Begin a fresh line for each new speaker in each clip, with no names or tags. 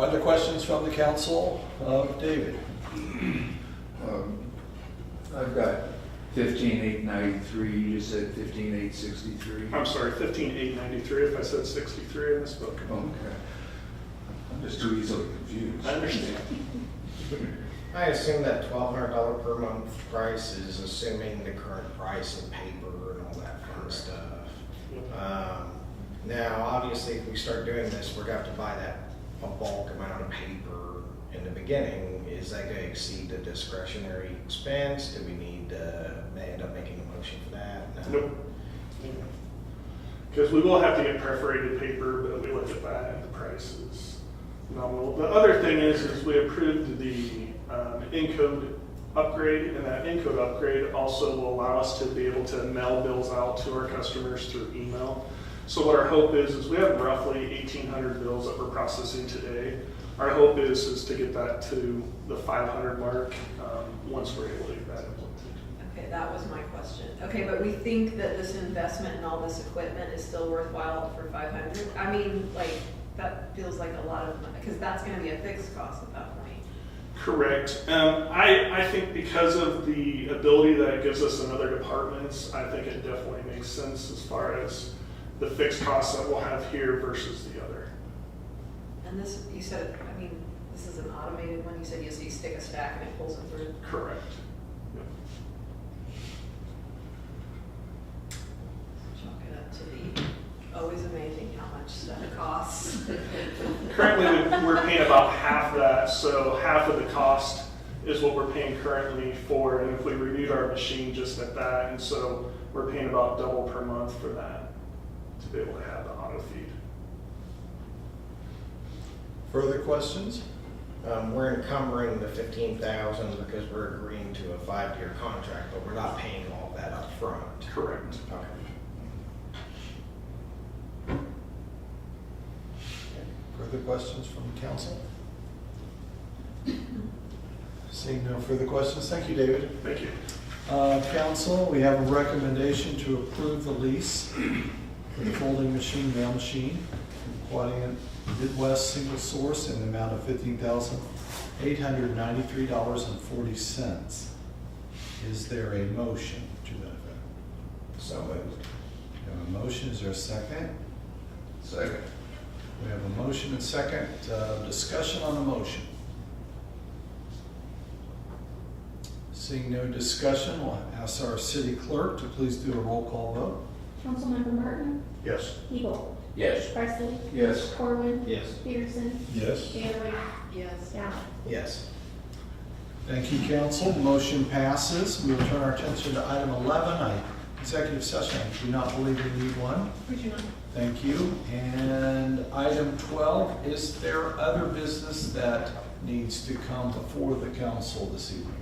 Other questions from the council? Uh, David?
Um, I've got fifteen eight ninety-three, you just said fifteen eight sixty-three.
I'm sorry, fifteen eight ninety-three, if I said sixty-three, I misspoke.
Okay. I'm just too easily confused.
I understand.
I assume that twelve hundred dollar per month price is assuming the current price of paper and all that fun stuff. Um, Now, obviously, if we start doing this, we're gonna have to buy that a bulk amount of paper in the beginning. Is that gonna exceed the discretionary expense? Do we need to ma- end up making a motion for that? No.
Nope. Because we will have to get perforated paper, but we looked at that, and the price is nominal. The other thing is, is we approved the um, Encode upgrade, and that Encode upgrade also will allow us to be able to mail bills out to our customers through email. So what our hope is, is we have roughly eighteen hundred bills that we're processing today. Our hope is, is to get that to the five hundred mark, um, once we're able to get that implemented.
Okay, that was my question. Okay, but we think that this investment and all this equipment is still worthwhile for five hundred? I mean, like, that feels like a lot of money, because that's gonna be a fixed cost at that point.
Correct. Um, I, I think because of the ability that it gives us in other departments, I think it definitely makes sense as far as the fixed costs that we'll have here versus the other.
And this, you said, I mean, this is an automated one, you said you, so you stick a stack and it pulls it through?
Correct.
Chalk it up to the, always amazing how much stuff costs.
Currently, we- we're paying about half that, so half of the cost is what we're paying currently for, and if we renewed our machine just at that, and so we're paying about double per month for that to be able to have the auto feed.
Further questions?
Um, we're encumbering the fifteen thousand because we're agreeing to a five-year contract, but we're not paying all that upfront.
Correct.
Okay.
Further questions from the council? Seeing no further questions, thank you, David.
Thank you.
Uh, Council, we have a recommendation to approve the lease for the folding machine mail machine from Quadient Midwest Single Source in the amount of fifteen thousand eight hundred ninety-three dollars and forty cents. Is there a motion to that effect?
So moved.
We have a motion, is there a second?
Second.
We have a motion and second, uh, discussion on the motion. Seeing no discussion, we'll ask our city clerk to please do a roll call vote.
Councilmember Martin,
Yes.
Hebel,
Yes.
Presley,
Yes.
Corwin,
Yes.
Peterson,
Yes.
Bailey,
Yes.
Allen.
Yes.
Thank you, council. Motion passes. We will turn our attention to item 11, I- executive session. I do not believe we need one.
Would you not?
Thank you. And item 12, is there other business that needs to come before the council this evening?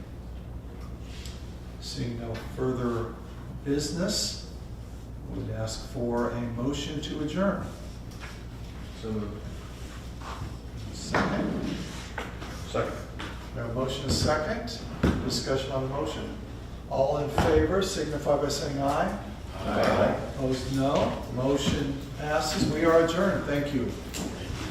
Seeing no further business, we would ask for a motion to adjourn.
So moved.
Second,
Second.
we have a motion is second. Discussion on the motion. All in favor signify by saying aye.
Aye.
Opposed, no. Motion passes. We are adjourned. Thank you.